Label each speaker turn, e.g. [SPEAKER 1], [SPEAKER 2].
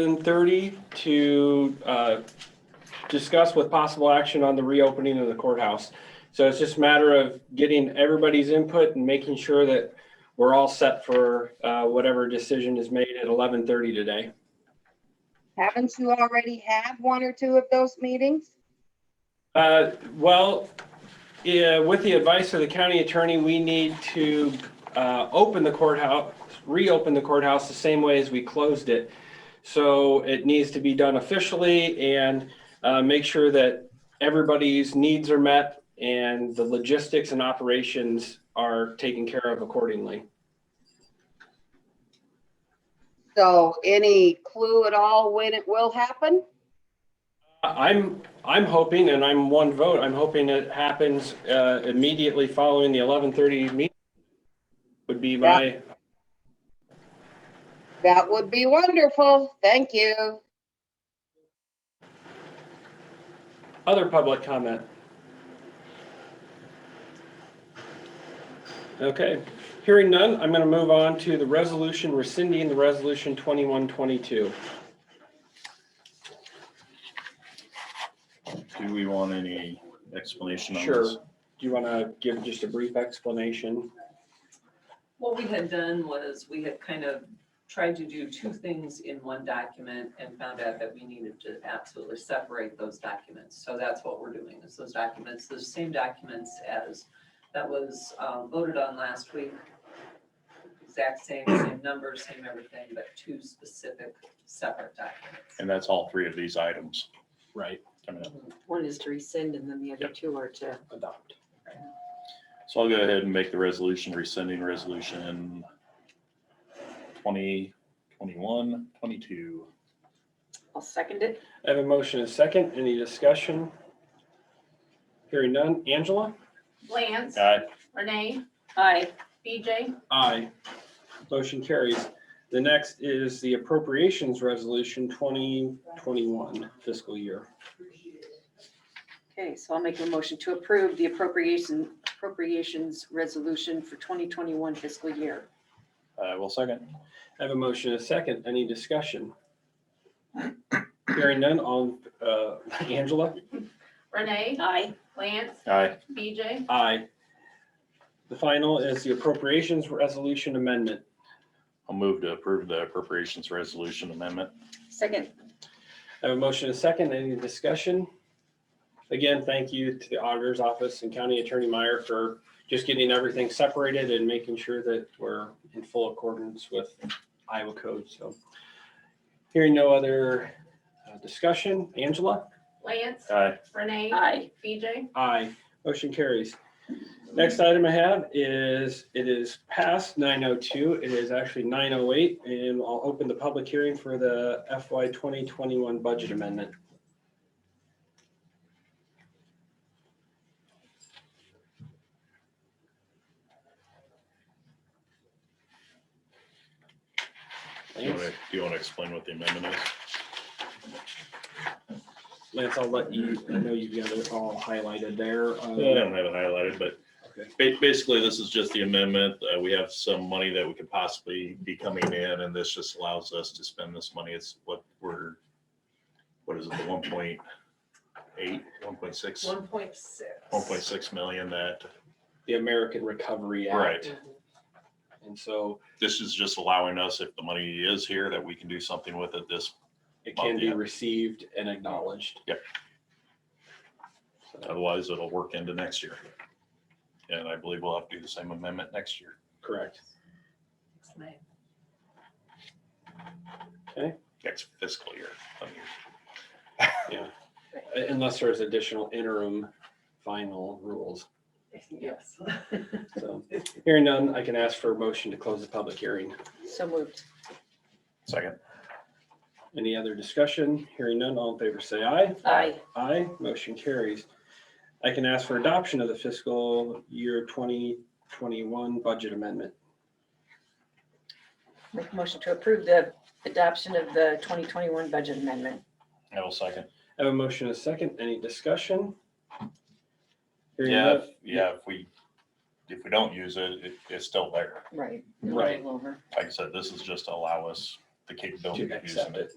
[SPEAKER 1] 11:30 to uh, discuss with possible action on the reopening of the courthouse. So it's just a matter of getting everybody's input and making sure that we're all set for uh, whatever decision is made at 11:30 today.
[SPEAKER 2] Haven't you already had one or two of those meetings?
[SPEAKER 1] Uh, Well, yeah, with the advice of the county attorney, we need to uh, open the courthouse, reopen the courthouse the same way as we closed it. So it needs to be done officially and uh, make sure that everybody's needs are met and the logistics and operations are taken care of accordingly.
[SPEAKER 2] So any clue at all when it will happen?
[SPEAKER 1] I'm, I'm hoping, and I'm one vote, I'm hoping it happens uh, immediately following the 11:30 meeting would be my,
[SPEAKER 2] That would be wonderful. Thank you.
[SPEAKER 1] Other public comment? Okay, hearing none, I'm going to move on to the resolution rescinding the resolution 2122.
[SPEAKER 3] Do we want any explanation on
[SPEAKER 1] Sure.
[SPEAKER 3] this?
[SPEAKER 1] Do you want to give just a brief explanation?
[SPEAKER 4] What we had done was we had kind of tried to do two things in one document and found out that we needed to absolutely separate those documents. So that's what we're doing is those documents, those same documents as that was um, voted on last week. Exact same, same numbers, same everything, but two specific separate documents.
[SPEAKER 3] And that's all three of these items
[SPEAKER 1] Right.
[SPEAKER 3] coming up.
[SPEAKER 5] One is to rescind and then the other
[SPEAKER 3] Yep.
[SPEAKER 5] two are to,
[SPEAKER 1] Adopt.
[SPEAKER 3] So I'll go ahead and make the resolution rescinding resolution 20, 21, 22.
[SPEAKER 5] I'll second it.
[SPEAKER 1] I have a motion and a second. Any discussion? Hearing none. Angela?
[SPEAKER 6] Lance,
[SPEAKER 3] Aye.
[SPEAKER 6] Renee,
[SPEAKER 5] Aye.
[SPEAKER 6] BJ,
[SPEAKER 1] Aye. Motion carries. The next is the appropriations resolution 2021 fiscal year.
[SPEAKER 5] Okay, so I'll make a motion to approve the appropriation, appropriations resolution for twenty twenty-one fiscal year.
[SPEAKER 3] I will Uh, second.
[SPEAKER 1] I have a motion and a second. Any discussion? Hearing none, all, uh, Angela?
[SPEAKER 6] Renee,
[SPEAKER 5] Aye.
[SPEAKER 6] Lance,
[SPEAKER 3] Aye.
[SPEAKER 6] BJ,
[SPEAKER 1] Aye. The final is the appropriations resolution amendment.
[SPEAKER 3] I'll move to approve the appropriations resolution amendment.
[SPEAKER 5] Second.
[SPEAKER 1] I have a motion and a second. Any discussion? Again, thank you to the auditor's office and County Attorney Meyer for just getting everything separated and making sure that we're in full accordance with Iowa code, so. Hearing no other uh, discussion, Angela?
[SPEAKER 6] Lance,
[SPEAKER 3] Aye.
[SPEAKER 6] Renee,
[SPEAKER 5] Aye.
[SPEAKER 6] BJ,
[SPEAKER 1] Aye. Motion carries. Next item I have is, it is past nine oh two, it is actually nine oh eight, and I'll open the public hearing for the FY twenty twenty-one budget amendment.
[SPEAKER 3] Do you want to,
[SPEAKER 1] Lance,
[SPEAKER 3] do you want to explain what the amendment is?
[SPEAKER 1] Lance, I'll let you, I know you've got it all highlighted there. uh,
[SPEAKER 3] I don't have it highlighted, but
[SPEAKER 1] Okay.
[SPEAKER 3] ba- basically, this is just the amendment. Uh, we have some money that we could possibly be coming in, and this just allows us to spend this money. It's what we're, what is it, the one point eight, one point six,
[SPEAKER 4] One point six.
[SPEAKER 3] one point six million that,
[SPEAKER 1] The American Recovery Act.
[SPEAKER 3] right.
[SPEAKER 1] And so
[SPEAKER 3] This is just allowing us, if the money is here, that we can do something with it this,
[SPEAKER 1] it can be
[SPEAKER 3] Yeah.
[SPEAKER 1] received and acknowledged.
[SPEAKER 3] Yep.
[SPEAKER 1] So,
[SPEAKER 3] otherwise it'll work into next year. And I believe we'll have to do the same amendment next year.
[SPEAKER 1] Correct.
[SPEAKER 3] next fiscal year.
[SPEAKER 1] Unless there's additional interim final rules.
[SPEAKER 4] Yes.
[SPEAKER 1] So hearing none, I can ask for a motion to close the public hearing.
[SPEAKER 5] So moved.
[SPEAKER 3] Second.
[SPEAKER 1] Any other discussion? Hearing none, all in favor say aye.
[SPEAKER 5] Aye.
[SPEAKER 1] Aye, motion carries. I can ask for adoption of the fiscal year 2021 budget amendment.
[SPEAKER 5] Make a motion to approve the adoption of the twenty twenty-one budget amendment.
[SPEAKER 3] I will second.
[SPEAKER 1] I have a motion and a second. Any discussion? Hearing
[SPEAKER 3] Yeah,
[SPEAKER 1] none,
[SPEAKER 3] if- yeah, if we, if we don't use it, it, it's still there.
[SPEAKER 5] Right.
[SPEAKER 1] Right.
[SPEAKER 5] Roll over.
[SPEAKER 3] Like I said, this is just to allow us the capability of using
[SPEAKER 1] accept
[SPEAKER 3] it.
[SPEAKER 1] it.